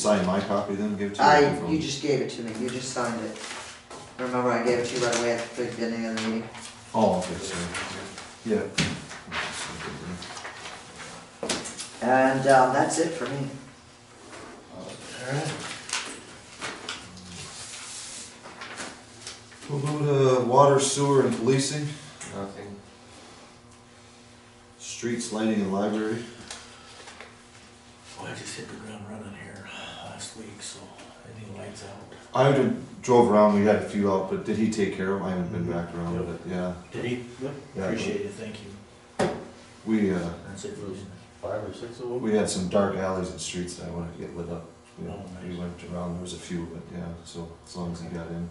Sign my copy then, give it to I, you. you just gave it to me, you just signed it. Remember, I gave it to you right away at the beginning of the meeting. Oh, okay, so, yeah. And, um, that's it for me. Alright. We'll go to water, sewer, and policing, Nothing. streets, lighting, and library. Well, I just hit the ground running here last week, so any lights out? I would've drove around, we had a few out, but did he take care of them? I haven't been back around with it, yeah. Did he? Yep. Yeah. Appreciate it, thank you. We, uh, That's it, Bruce. Five or six of them? we had some dark alleys and streets that I wanted to get lit up. We- Oh, We nice. went around, there was a few, but yeah, so as long as he got in.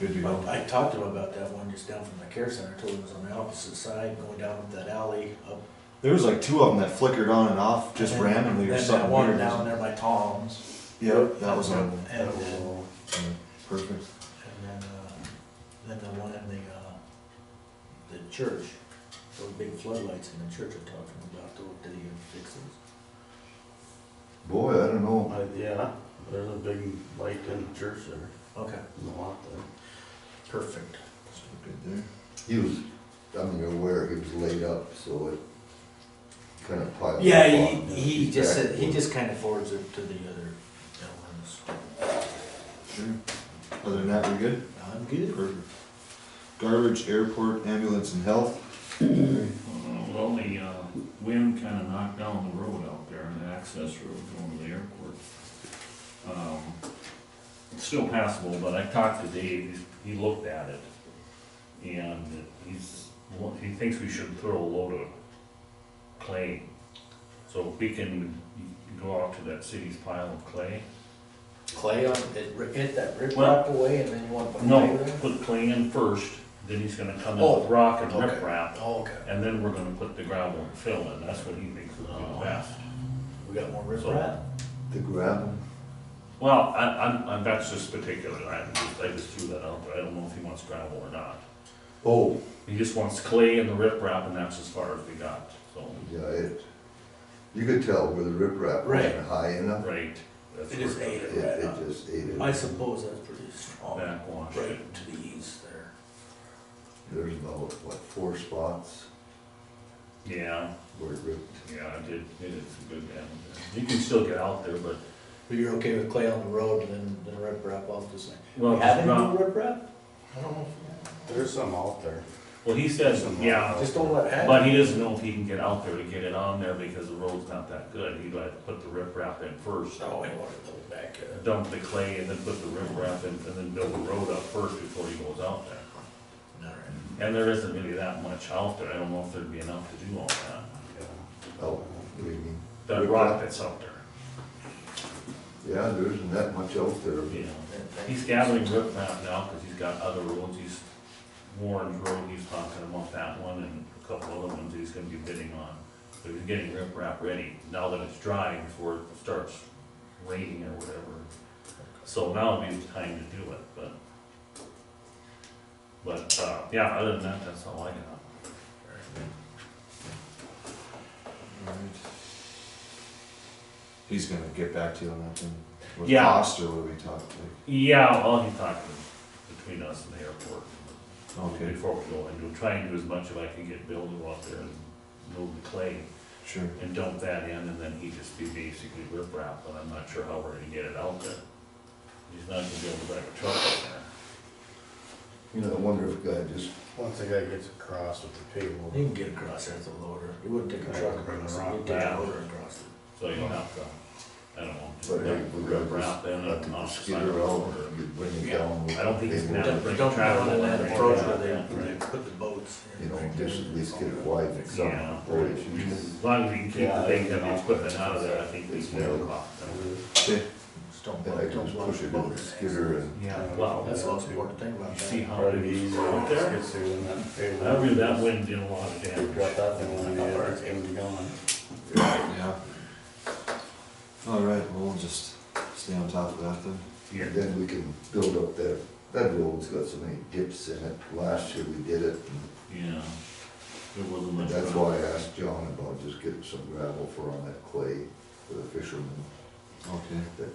Good to go. I talked to him about that one just down from the care center, told him it was on the opposite side, going down up that alley, up. There was like two of them that flickered on and off just and then- randomly or Then that something one weird. down there by Tom's. Yep, that was on, And, That was and all. perfect. then, uh, then the one in the, uh, the church, those big floodlights in the church I'm talking about, those, did he fix those? Boy, I don't know. Uh, Yeah, there's a big light in the church there, Okay, in the lot there. perfect. So good there. He was, I mean, aware he was laid up, so it kind of piled up. Yeah, on him. he, he just said, he Exactly. just kind of forwards it to the other gentleman's. Sure. Other than that, we're good? I'm good. Perfect. Garbage, airport, ambulance, and health. Uh, Well, the uh, wind kind of knocked down the road out there, the access road going to the airport. Um, It's still passable, but I talked to Dave, he he looked at it. And he's, he thinks we should throw a load of clay. So if we can go out to that city's pile of clay. Clay on, it, ri- hit that rip Well- rock away and then you want to put clay No, there? put clay in first, then he's gonna come Oh, in with rock and okay. riprap. Oh, okay. And then we're gonna put the gravel and fill in, that's what he thinks would Oh. be best. We got more rip So- rock? The gravel, Well, I, I'm, I'm, that's just particular, I just, I just threw that out there, I don't know if he wants gravel or not. oh, He just wants clay and the riprap, and that's as far as we got, so, yeah, it, you could tell where the riprap Right. wasn't high enough. right. that's It is where- eight. It, Right it up. just ate I it. suppose that's pretty strong. Backwash. Right to the east there. There's about, what, four spots Yeah, where it ripped. yeah, I did, it is a good down there. You can still get out there, but, But you're okay with clay on the road and then, then rip rock off the side? well, We have it's any not, rip rock? I don't know. There's some out there. well, he says, yeah, Just don't let it happen. but he doesn't know if he can get out there to get it on there because the road's not that good, he'd like to put the riprap in first. Oh, I want to go back. uh, dump the clay and then put the riprap in and then build the road up first before he goes out there. all right. And there isn't really that much out there, I don't know if there'd be enough to do all that, Oh, what do you mean? that rock that's out there, Yeah, there isn't that much out there. you know. And thank He's you. gathering riprap now, cause he's got other roads, he's, Warren's Road, he's talking about that one and a couple other ones he's gonna be bidding on. But he's getting riprap ready, now that it's dry before it starts raining or whatever. So now would be the time to do it, but. But, uh, yeah, other than that, that's all I got. Alright. He's gonna get back to you on that thing. With Yeah. cost or what we talked, Yeah, well, he talked to- between us and the airport. like, okay, Before we go, and we'll try and do as much as I can get Bill to go out there and move the clay sure. and dump that in, and then he just be basically rip wrap, but I'm not sure how we're gonna get it out there. He's not gonna be able to drive a truck out there. You know, I wonder if God just, Once the guy gets across with the table. You can get across there with a loader. You wouldn't take a Right, truck bring the across it. rock You'd take a down. loader across it. So you'll have to, I don't know, just But I rip think we gotta rip wrap then let the and off the side mosquito of the out, road. or- you bring it Yeah, down. with I don't think it's the gonna table. happen. Don't, don't run in that approach where they, Yeah, where they right. put the boats. You know, just at least get it wide and Yeah. something. Boy, it's usually- As long as we can keep Yeah, the things I and the think- equipment out of there, I think we It's can have a narrow. lot. Okay, Just don't, And I can don't push launch the it boat. in in the it. skidder and Yeah, well, That's the most important thing about you that. see how Probably be it easier out once it there. gets through than that table. I read that wind did a lot of Drop damage. that thing on the other, it's gonna be gone. yeah. Alright, well, we'll just stay on top of that then. Yeah. then we can build up that, that road's got so many dips in it. Last year we did it, Yeah. There wasn't and much. that's room. why I asked John about just getting some gravel for on that clay for the fishermen. okay.